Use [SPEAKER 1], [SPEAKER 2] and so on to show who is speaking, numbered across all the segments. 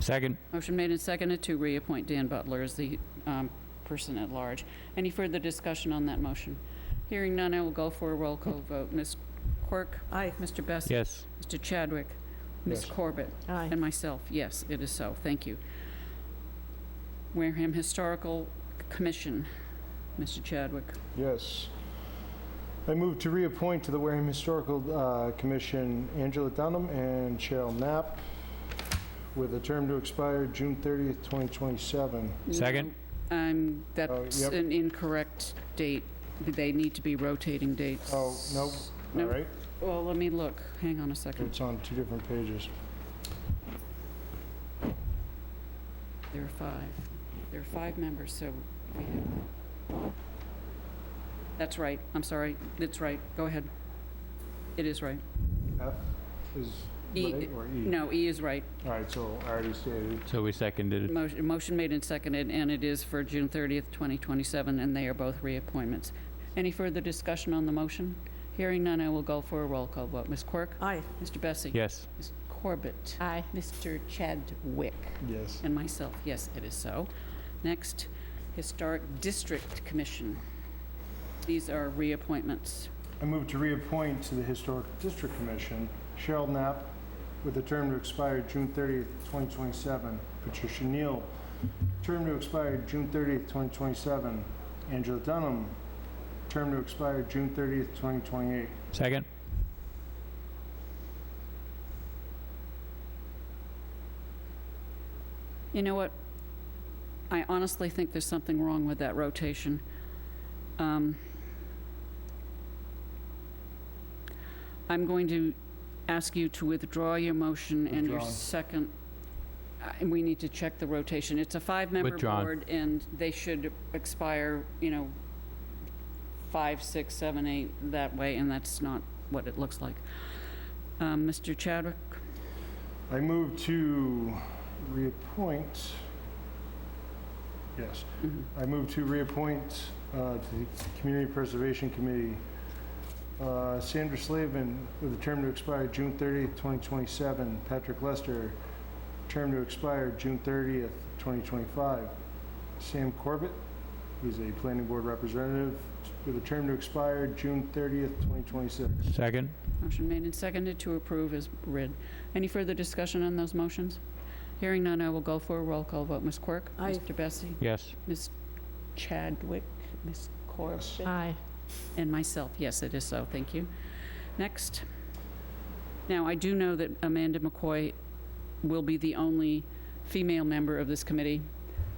[SPEAKER 1] Second.
[SPEAKER 2] Motion made and seconded to reappoint Dan Butler as the um, person at large. Any further discussion on that motion? Hearing none, I will go for a roll call vote. Ms. Quirk?
[SPEAKER 3] Aye.
[SPEAKER 2] Mr. Best?
[SPEAKER 1] Yes.
[SPEAKER 2] Mr. Chadwick? Ms.
[SPEAKER 4] Yes.
[SPEAKER 2] Corbett?
[SPEAKER 3] Aye.
[SPEAKER 2] And myself, yes, it is so. Thank you. Wareham Historical Commission, Mr. Chadwick.
[SPEAKER 4] Yes. I move to reappoint to the Wareham Historical uh, Commission Angela Dunham and Cheryl Knapp with a term to expire June 30th, 2027.
[SPEAKER 1] Second.
[SPEAKER 2] No, Um, that's
[SPEAKER 4] Oh, yep.
[SPEAKER 2] an incorrect date. They need to be rotating dates.
[SPEAKER 4] Oh, no, all
[SPEAKER 2] No,
[SPEAKER 4] right,
[SPEAKER 2] Well, let me look. Hang on a second.
[SPEAKER 4] it's on two different pages.
[SPEAKER 2] There are five. There are five members, so we have... That's right. I'm sorry. It's right. Go ahead. It is right.
[SPEAKER 4] F is
[SPEAKER 2] E-
[SPEAKER 4] right or E?
[SPEAKER 2] No, E is right.
[SPEAKER 4] All right, so I already stated,
[SPEAKER 1] So we seconded it.
[SPEAKER 2] Motion motion made and seconded, and it is for June 30th, 2027, and they are both reappointments. Any further discussion on the motion? Hearing none, I will go for a roll call vote. Ms. Quirk?
[SPEAKER 3] Aye.
[SPEAKER 2] Mr. Bessie?
[SPEAKER 1] Yes.
[SPEAKER 2] Ms. Corbett?
[SPEAKER 3] Aye.
[SPEAKER 2] Mr. Chadwick?
[SPEAKER 4] yes.
[SPEAKER 2] And myself, yes, it is so. Next, Historic District Commission. These are reappointments.
[SPEAKER 4] I move to reappoint to the Historic District Commission Cheryl Knapp with a term to expire June 30th, 2027. Patricia Neal, term to expire June 30th, 2027. Angela Dunham, term to expire June 30th, 2028.
[SPEAKER 1] Second.
[SPEAKER 2] You know what? I honestly think there's something wrong with that rotation. Um, I'm going to ask you to withdraw your motion and your
[SPEAKER 4] Withdrawn.
[SPEAKER 2] second, I- we need to check the rotation. It's a five-member
[SPEAKER 1] Withdrawn.
[SPEAKER 2] board, and they should expire, you know, five, six, seven, eight, that way, and that's not what it looks like. Um, Mr. Chadwick?
[SPEAKER 4] I move to reappoint, yes,
[SPEAKER 2] Mhm.
[SPEAKER 4] I move to reappoint uh, to the Community Preservation Committee uh, Sandra Slavin with a term to expire June 30th, 2027. Patrick Lester, term to expire June 30th, 2025. Sam Corbett, who's a planning board representative, with a term to expire June 30th, 2026.
[SPEAKER 1] Second.
[SPEAKER 2] Motion made and seconded to approve is read. Any further discussion on those motions? Hearing none, I will go for a roll call vote. Ms. Quirk?
[SPEAKER 3] Aye.
[SPEAKER 2] Mr. Bessie?
[SPEAKER 1] Yes.
[SPEAKER 2] Ms. Chadwick? Ms. Corbett?
[SPEAKER 3] Aye.
[SPEAKER 2] And myself, yes, it is so, thank you. Next. Now, I do know that Amanda McCoy will be the only female member of this committee,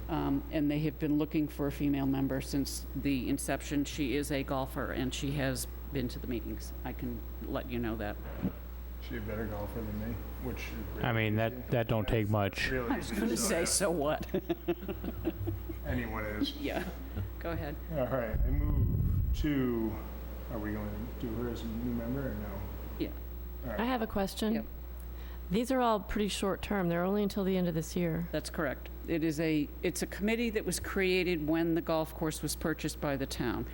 [SPEAKER 2] um, and they have been looking for a female member since the inception. She is a golfer, and she has been to the meetings. I can let you know that.
[SPEAKER 4] She's a better golfer than me, which.
[SPEAKER 1] I mean, that, that don't take much.
[SPEAKER 4] Really.
[SPEAKER 2] I was going to say, so what?
[SPEAKER 4] Anyone is.
[SPEAKER 2] Yeah, go ahead.
[SPEAKER 4] All right, I move to, are we going to do her as a new member or no?
[SPEAKER 5] I have a question.
[SPEAKER 2] Yep.
[SPEAKER 5] These are all pretty short-term. They're only until the end of this year.
[SPEAKER 2] That's correct. It is a, it's a committee that was created when the golf course was purchased by the town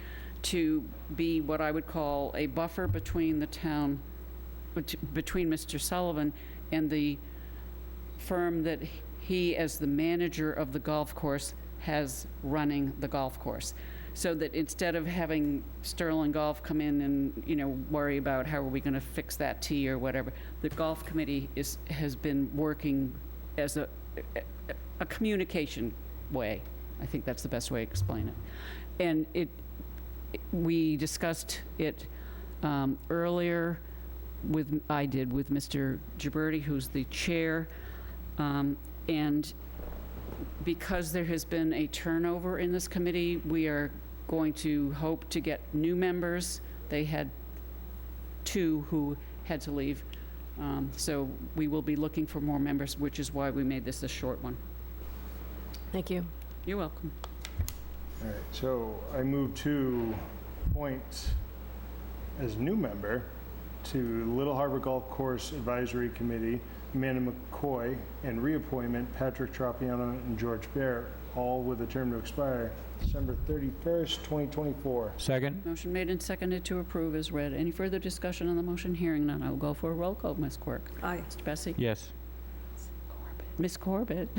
[SPEAKER 2] to be what I would call a buffer between the town, bet- between Mr. Sullivan and the firm that he, as the manager of the golf course, has running the golf course. So that instead of having Sterling Golf come in and, you know, worry about how are we gonna fix that tee or whatever, the golf committee is, has been working as a, a communication way. I think that's the best way to explain it. And it, we discussed it um, earlier with, I did, with Mr. Gibberti, who's the chair. Um, And because there has been a turnover in this committee, we are going to hope to get new members. They had two who had to leave. Um, So we will be looking for more members, which is why we made this a short one.
[SPEAKER 5] Thank you.
[SPEAKER 2] You're welcome.
[SPEAKER 4] All right, so I move to appoint as new member to Little Harbor Golf Course Advisory Committee, Amanda McCoy, and reappointment Patrick Tropiano and George Barrett, all with a term to expire December 31st, 2024.
[SPEAKER 1] Second.
[SPEAKER 2] Motion made and seconded to approve is read. Any further discussion on the motion? Hearing none, I will go for a roll call. Ms. Quirk?
[SPEAKER 3] Aye.
[SPEAKER 2] Mr. Bessie?
[SPEAKER 1] Yes.
[SPEAKER 2] Corbett. Miss Corbett.